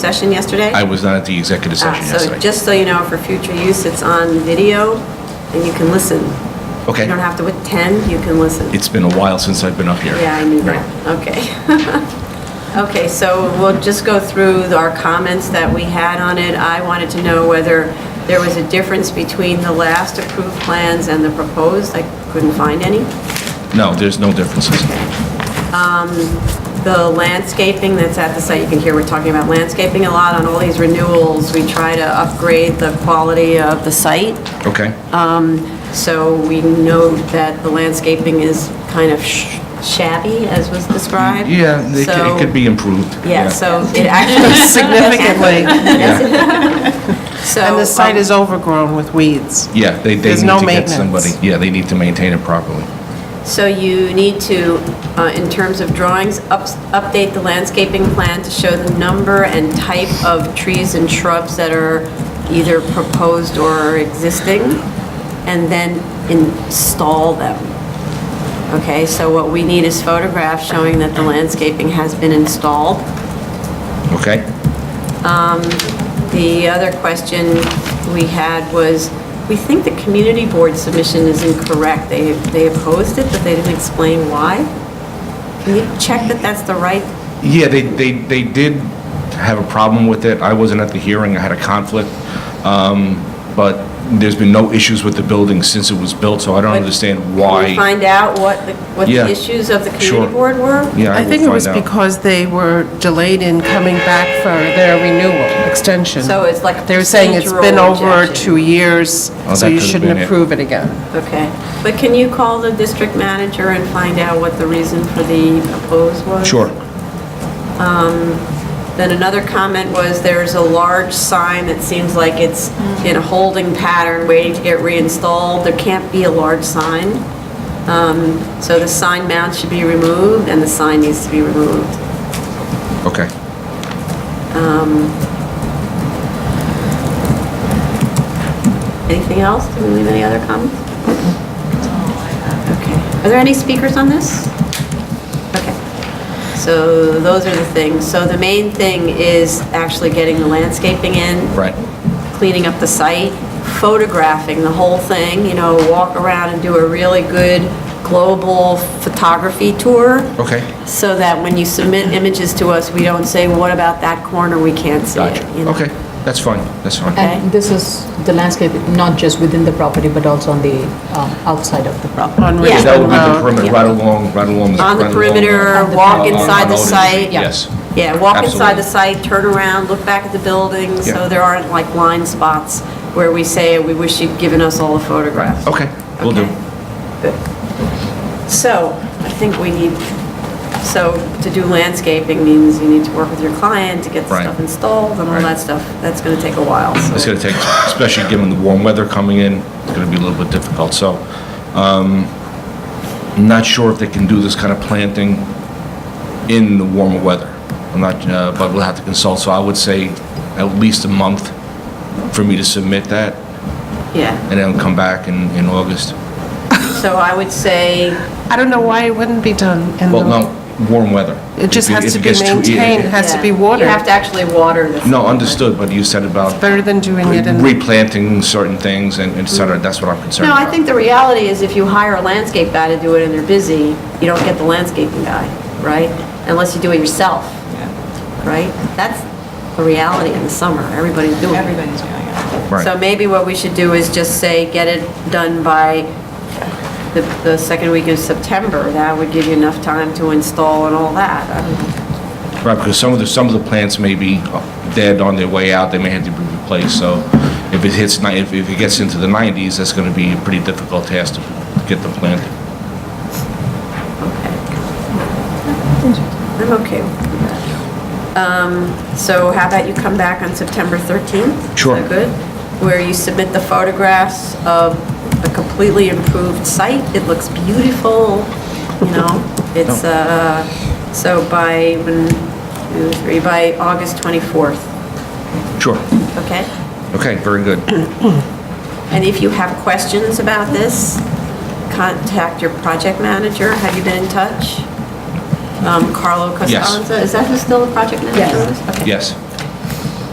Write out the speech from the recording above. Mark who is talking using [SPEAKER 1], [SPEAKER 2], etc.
[SPEAKER 1] session yesterday?
[SPEAKER 2] I was not at the executive
[SPEAKER 1] Ah,
[SPEAKER 2] session
[SPEAKER 1] So
[SPEAKER 2] yesterday.
[SPEAKER 1] just so you know, for future use, it's on video, and you can listen. You don't
[SPEAKER 2] Okay,
[SPEAKER 1] have to attend, you can listen.
[SPEAKER 2] it's been a while since I've been up here.
[SPEAKER 1] Yeah, I knew
[SPEAKER 2] Right.
[SPEAKER 1] that. Okay. Okay, so we'll just go through our comments that we had on it. I wanted to know whether there was a difference between the last approved plans and the proposed. I couldn't find any.
[SPEAKER 2] No, there's no differences.
[SPEAKER 1] Um, The landscaping that's at the site, you can hear we're talking about landscaping a lot on all these renewals. We try to upgrade the quality of the site.
[SPEAKER 2] Okay,
[SPEAKER 1] Uh, So we know that the landscaping is kind of sh- shabby, as was described.
[SPEAKER 2] yeah, it c-
[SPEAKER 1] So-
[SPEAKER 2] it could be improved.
[SPEAKER 1] Yeah, so it actually.
[SPEAKER 3] significantly.
[SPEAKER 2] Yeah,
[SPEAKER 1] So.
[SPEAKER 3] And the site
[SPEAKER 1] um,
[SPEAKER 3] is overgrown with weeds.
[SPEAKER 2] Yeah, they, they
[SPEAKER 3] There's
[SPEAKER 2] need
[SPEAKER 3] no
[SPEAKER 2] to get somebody,
[SPEAKER 3] maintenance.
[SPEAKER 2] yeah, they need to maintain it properly.
[SPEAKER 1] So you need to, uh, in terms of drawings, ups- update the landscaping plan to show the number and type of trees and shrubs that are either proposed or existing, and then install them. Okay, so what we need is photographs showing that the landscaping has been installed.
[SPEAKER 2] Okay,
[SPEAKER 1] The other question we had was, we think the community board submission is incorrect. They, they opposed it, but they didn't explain why. Can you check that that's the right?
[SPEAKER 2] yeah, they, they, they did have a problem with it. I wasn't at the hearing, I had a conflict. Um, But there's been no issues with the building since it was built, so I don't understand
[SPEAKER 1] Can
[SPEAKER 2] why.
[SPEAKER 1] you find out what the, what
[SPEAKER 2] Yeah.
[SPEAKER 1] the issues of the
[SPEAKER 2] Sure.
[SPEAKER 1] community board were?
[SPEAKER 2] Yeah, I
[SPEAKER 3] I
[SPEAKER 2] will
[SPEAKER 3] think it was
[SPEAKER 2] find out.
[SPEAKER 3] because they were delayed in coming back for their renewal, extension.
[SPEAKER 1] So it's like a
[SPEAKER 3] They were saying it's been
[SPEAKER 1] procedural
[SPEAKER 3] over
[SPEAKER 1] objection.
[SPEAKER 3] two years,
[SPEAKER 2] Oh, that
[SPEAKER 3] so you
[SPEAKER 2] could've been
[SPEAKER 3] shouldn't
[SPEAKER 2] it.
[SPEAKER 3] approve it again.
[SPEAKER 1] Okay, but can you call the district manager and find out what the reason for the oppose was?
[SPEAKER 2] Sure,
[SPEAKER 1] Then another comment was there's a large sign that seems like it's in a holding pattern, waiting to get reinstalled. There can't be a large sign. Um, So the sign mount should be removed and the sign needs to be removed.
[SPEAKER 2] okay.
[SPEAKER 1] Anything else? Did we leave any other comments? Okay. Are there any speakers on this? Okay. So those are the things. So the main thing is actually getting the landscaping in.
[SPEAKER 2] Right.
[SPEAKER 1] Cleaning up the site, photographing the whole thing, you know, walk around and do a really good global photography tour.
[SPEAKER 2] Okay.
[SPEAKER 1] So that when you submit images to us, we don't say, what about that corner? We can't see it.
[SPEAKER 2] Gotcha.
[SPEAKER 1] you know?
[SPEAKER 2] Okay, that's fine, that's fine.
[SPEAKER 4] And this is the landscape, not just within the property, but also on the um, outside of the property.
[SPEAKER 3] On
[SPEAKER 1] Yeah.
[SPEAKER 2] Yeah, that would
[SPEAKER 3] Richmond
[SPEAKER 2] be the
[SPEAKER 3] Road.
[SPEAKER 2] perimeter, right along, right along.
[SPEAKER 1] On the
[SPEAKER 2] right along
[SPEAKER 1] perimeter,
[SPEAKER 4] the-
[SPEAKER 1] walk
[SPEAKER 2] on-
[SPEAKER 1] inside
[SPEAKER 2] on
[SPEAKER 1] the
[SPEAKER 2] Otis.
[SPEAKER 1] site.
[SPEAKER 2] Yes.
[SPEAKER 1] Yeah, walk inside
[SPEAKER 2] Absolutely.
[SPEAKER 1] the site, turn around, look back at the building,
[SPEAKER 2] Yeah.
[SPEAKER 1] so there aren't like blind spots where we say, we wish you'd given us all the photographs.
[SPEAKER 2] Okay, will do.
[SPEAKER 1] Okay. So, I think we need, so to do landscaping means you need to work with your client to get the
[SPEAKER 2] Right.
[SPEAKER 1] stuff installed and all
[SPEAKER 2] Right.
[SPEAKER 1] that stuff. That's going to take a while, so.
[SPEAKER 2] It's going to take, especially given the warm weather coming in, it's going to be a little bit difficult, so. um, I'm not sure if they can do this kind of planting in the warmer weather. I'm not, uh, but we'll have to consult, so I would say at least a month for me to submit that,
[SPEAKER 1] Yeah,
[SPEAKER 2] and then come back in, in August.
[SPEAKER 1] so I would say,
[SPEAKER 3] I don't know why it wouldn't be done in
[SPEAKER 2] Well,
[SPEAKER 3] the,
[SPEAKER 2] no, warm weather.
[SPEAKER 3] it just
[SPEAKER 2] If
[SPEAKER 3] has
[SPEAKER 2] if
[SPEAKER 3] to
[SPEAKER 2] it
[SPEAKER 3] be
[SPEAKER 2] gets too-
[SPEAKER 3] maintained, has to
[SPEAKER 1] yeah,
[SPEAKER 3] be watered.
[SPEAKER 1] You have to actually water the.
[SPEAKER 2] No,
[SPEAKER 1] thing.
[SPEAKER 2] understood, but you said about
[SPEAKER 3] Better than doing it in.
[SPEAKER 2] replanting certain things and et cetera, that's what I'm concerned
[SPEAKER 1] No,
[SPEAKER 2] about.
[SPEAKER 1] I think the reality is if you hire a landscape guy to do it and they're busy, you don't get the landscaping guy, right? Unless you do it yourself, right? That's the reality in the summer, everybody's doing it. Everybody's doing it.
[SPEAKER 2] Right.
[SPEAKER 1] So maybe what we should do is just say, get it done by the, the second week of September. That would give you enough time to install and all that. I don't know.
[SPEAKER 2] Right, because some of the, some of the plants may be dead on their way out, they may have to be replaced, so if it hits, ni- if if it gets into the 90s, that's going to be a pretty difficult task to get them planted.
[SPEAKER 1] I'm okay with that. Um, So how about you come back on September 13th?
[SPEAKER 2] Sure.
[SPEAKER 1] Is that good? Where you submit the photographs of a completely improved site. It looks beautiful, you know? It's, uh, so by, when, two, three, by August 24th,
[SPEAKER 2] Sure,
[SPEAKER 1] okay?
[SPEAKER 2] okay, very good.
[SPEAKER 1] And if you have questions about this, contact your project manager. Have you been in touch? Um, Carlo
[SPEAKER 2] Yes.
[SPEAKER 1] Costanza, is that who's still the project manager?
[SPEAKER 4] Yes.
[SPEAKER 1] Okay.
[SPEAKER 2] Yes,